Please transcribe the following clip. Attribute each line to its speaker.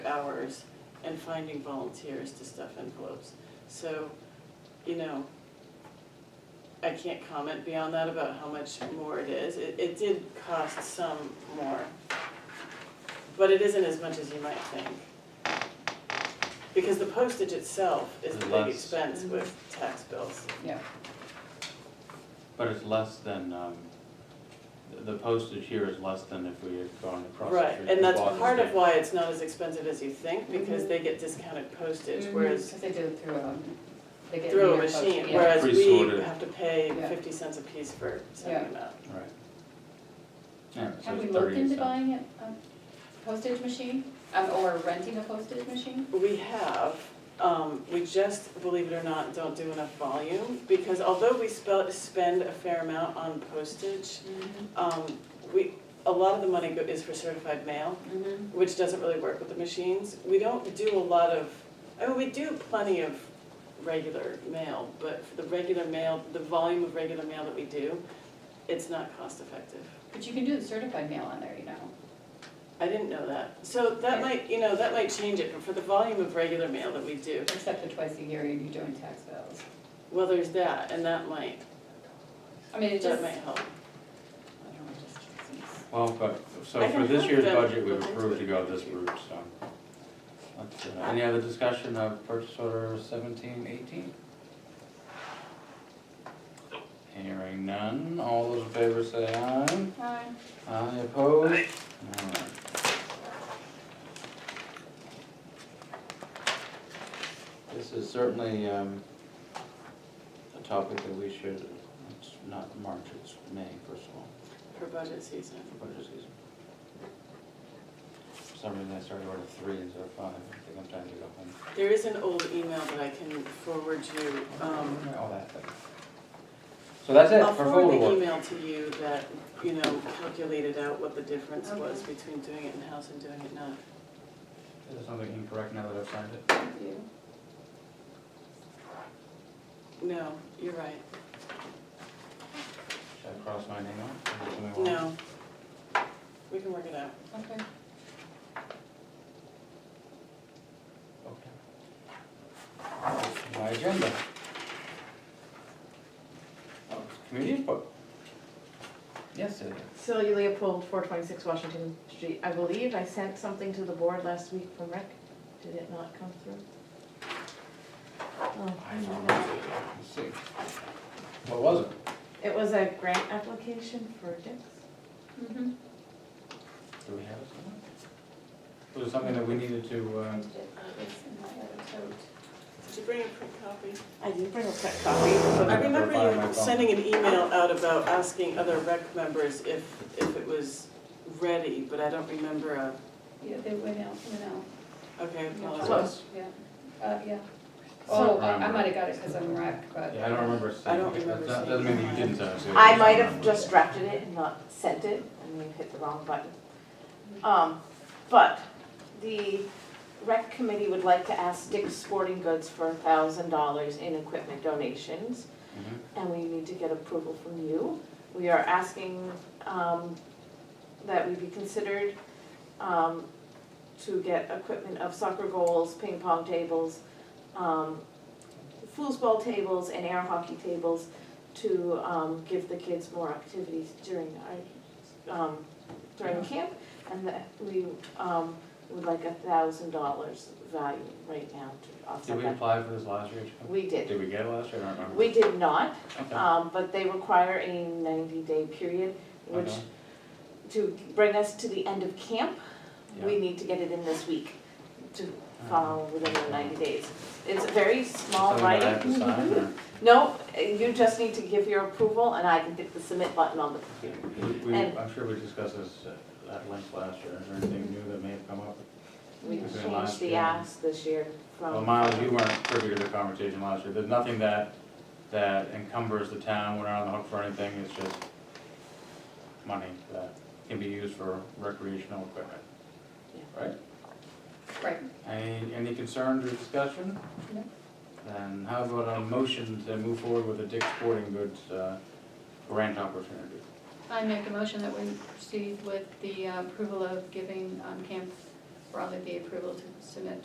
Speaker 1: hours and finding volunteers to stuff envelopes. So, you know, I can't comment beyond that about how much more it is. It, it did cost some more. But it isn't as much as you might think. Because the postage itself is the big
Speaker 2: Less.
Speaker 1: expense with tax bills.
Speaker 3: yeah.
Speaker 2: But it's less than, um, the- the postage here is less than if we had gone across the
Speaker 1: Right,
Speaker 2: street.
Speaker 1: and
Speaker 2: to
Speaker 1: that's
Speaker 2: Boston
Speaker 1: part of
Speaker 2: State.
Speaker 1: why it's not as expensive as you think, because they get discounted postage, whereas
Speaker 3: Mm-hmm. Because they do it through, um, they get.
Speaker 1: through a
Speaker 3: near post-
Speaker 1: machine,
Speaker 3: yeah.
Speaker 1: whereas we
Speaker 2: Pre-sorted.
Speaker 1: have to pay
Speaker 3: Yeah.
Speaker 1: fifty cents a piece for sending them out.
Speaker 2: Right. Yeah, so
Speaker 3: Have we
Speaker 2: it's
Speaker 3: looked
Speaker 2: 38
Speaker 3: into
Speaker 2: cents.
Speaker 3: buying a a postage machine, um, or renting a postage machine?
Speaker 1: We have, um, we just, believe it or not, don't do enough volume, because although we spell, spend a fair amount on postage, um, we, a lot of the money go- is for certified mail,
Speaker 3: Mm-hmm.
Speaker 1: which doesn't really work with the machines. We don't do a lot of, I mean, we do plenty of regular mail, but for the regular mail, the volume of regular mail that we do, it's not cost effective.
Speaker 3: But you can do the certified mail on there, you know.
Speaker 1: I didn't know that. So that might, you know, that might change it, but for the volume of regular mail that we do,
Speaker 3: Except for twice a year, you'd be doing tax bills.
Speaker 1: well, there's that, and that might,
Speaker 3: I mean, it
Speaker 1: that
Speaker 3: just, I
Speaker 1: might
Speaker 3: don't know,
Speaker 1: help.
Speaker 3: it just seems.
Speaker 2: Well, but, so
Speaker 1: I
Speaker 2: for
Speaker 1: can
Speaker 2: this
Speaker 1: help
Speaker 2: year's
Speaker 1: them
Speaker 2: budget, we've
Speaker 1: look into
Speaker 2: approved
Speaker 1: it.
Speaker 2: to go this route, so. Let's, uh, Any other discussion of purchase order seventeen eighteen? Hearing none, all those in favor say aye.
Speaker 3: Hi.
Speaker 2: Aye opposed? Alright. This is certainly um, a topic that we should, it's not March, it's May, first of all,
Speaker 1: for budget season.
Speaker 2: for budget season. For some reason, I started order three instead of five, I think I'm trying to go home.
Speaker 1: There is an old email that I can forward you, um,
Speaker 2: All that thing. So that's it
Speaker 1: I'll
Speaker 2: for
Speaker 1: forward
Speaker 2: forward
Speaker 1: the
Speaker 2: work.
Speaker 1: email to you that, you know, calculated out what the difference
Speaker 3: Okay.
Speaker 1: was between doing it in-house and doing it not.
Speaker 2: Is there something incorrect now that I've signed it?
Speaker 3: Thank you.
Speaker 1: No, you're right,
Speaker 2: Should I cross my name out? Or do we want-
Speaker 1: no. We can work it out.
Speaker 3: Okay.
Speaker 2: Okay. My agenda. Oh, Community input. Yes, Celia.
Speaker 4: Celia Leopold, four twenty-six Washington Street. I believe I sent something to the board last week from Rick. Did it not come through? Oh.
Speaker 2: I don't know. Let's see. What was it?
Speaker 4: It was a grant application for Dix.
Speaker 3: Mm-hmm.
Speaker 2: Do we have it somewhere? Was it something that we needed to, uh,
Speaker 1: Did you bring a print copy?
Speaker 4: I did bring a print copy.
Speaker 1: I
Speaker 2: I
Speaker 1: remember
Speaker 2: provided my
Speaker 1: you
Speaker 2: phone.
Speaker 1: sending an email out about asking other rec members if, if it was ready, but I don't remember a,
Speaker 3: Yeah, they went out, went out,
Speaker 1: okay,
Speaker 2: was
Speaker 1: well,
Speaker 4: Close.
Speaker 3: yeah, uh, yeah.
Speaker 2: So-
Speaker 3: Oh, I I might have got it because I'm wrecked, but.
Speaker 2: yeah, I don't remember seeing.
Speaker 1: I don't
Speaker 2: it. That-
Speaker 1: remember
Speaker 2: That doesn't
Speaker 1: seeing
Speaker 2: mean that you
Speaker 1: it.
Speaker 2: didn't send it. Celia.
Speaker 4: I
Speaker 2: just
Speaker 4: might
Speaker 2: don't
Speaker 4: have
Speaker 2: remember.
Speaker 4: just drafted it and not sent it, and we hit the wrong button. Um, but the rec committee would like to ask Dick's Sporting Goods for a thousand dollars in equipment donations.
Speaker 2: Mhm.
Speaker 4: and we need to get approval from you. We are asking um, that we be considered um, to get equipment of soccer goals, ping pong tables, um, foosball tables, and air hockey tables to um, give the kids more activities during our, um, during camp. And that we um, would like a thousand dollars value right now to
Speaker 2: Did
Speaker 4: offset
Speaker 2: we
Speaker 4: that.
Speaker 2: apply for this last year? too?
Speaker 4: We did.
Speaker 2: Did we get it last year? I don't remember.
Speaker 4: We did not,
Speaker 2: Okay.
Speaker 4: um, but they require a ninety-day period, which,
Speaker 2: Okay.
Speaker 4: to bring us to the end of camp, we
Speaker 2: Yeah.
Speaker 4: need to get it in this week, to follow within the ninety days. It's a very small
Speaker 2: Something that I have
Speaker 4: writing. Mm-hmm.
Speaker 2: to sign or?
Speaker 4: No, you just need to give your approval, and I can hit the submit button on the computer.
Speaker 2: We- we-
Speaker 4: And-
Speaker 2: I'm sure we discussed this uh, at length last year, is there anything new that may have come up?
Speaker 4: We
Speaker 2: Okay,
Speaker 4: changed
Speaker 2: last
Speaker 4: the
Speaker 2: year.
Speaker 4: ask this year from.
Speaker 2: Well, Miles, you weren't privy to the conversation last year, there's nothing that, that encumbers the town, we're not on the hook for anything, it's just money that can be used for recreational equipment. Right?
Speaker 3: Right.
Speaker 2: Any, any concerns or discussion?
Speaker 3: No.
Speaker 2: Then how about a motion to move forward with the Dick Sporting Goods uh, grant opportunity?
Speaker 5: I make a motion that we proceed with the uh, approval of giving um, Camp
Speaker 3: broadly the approval to submit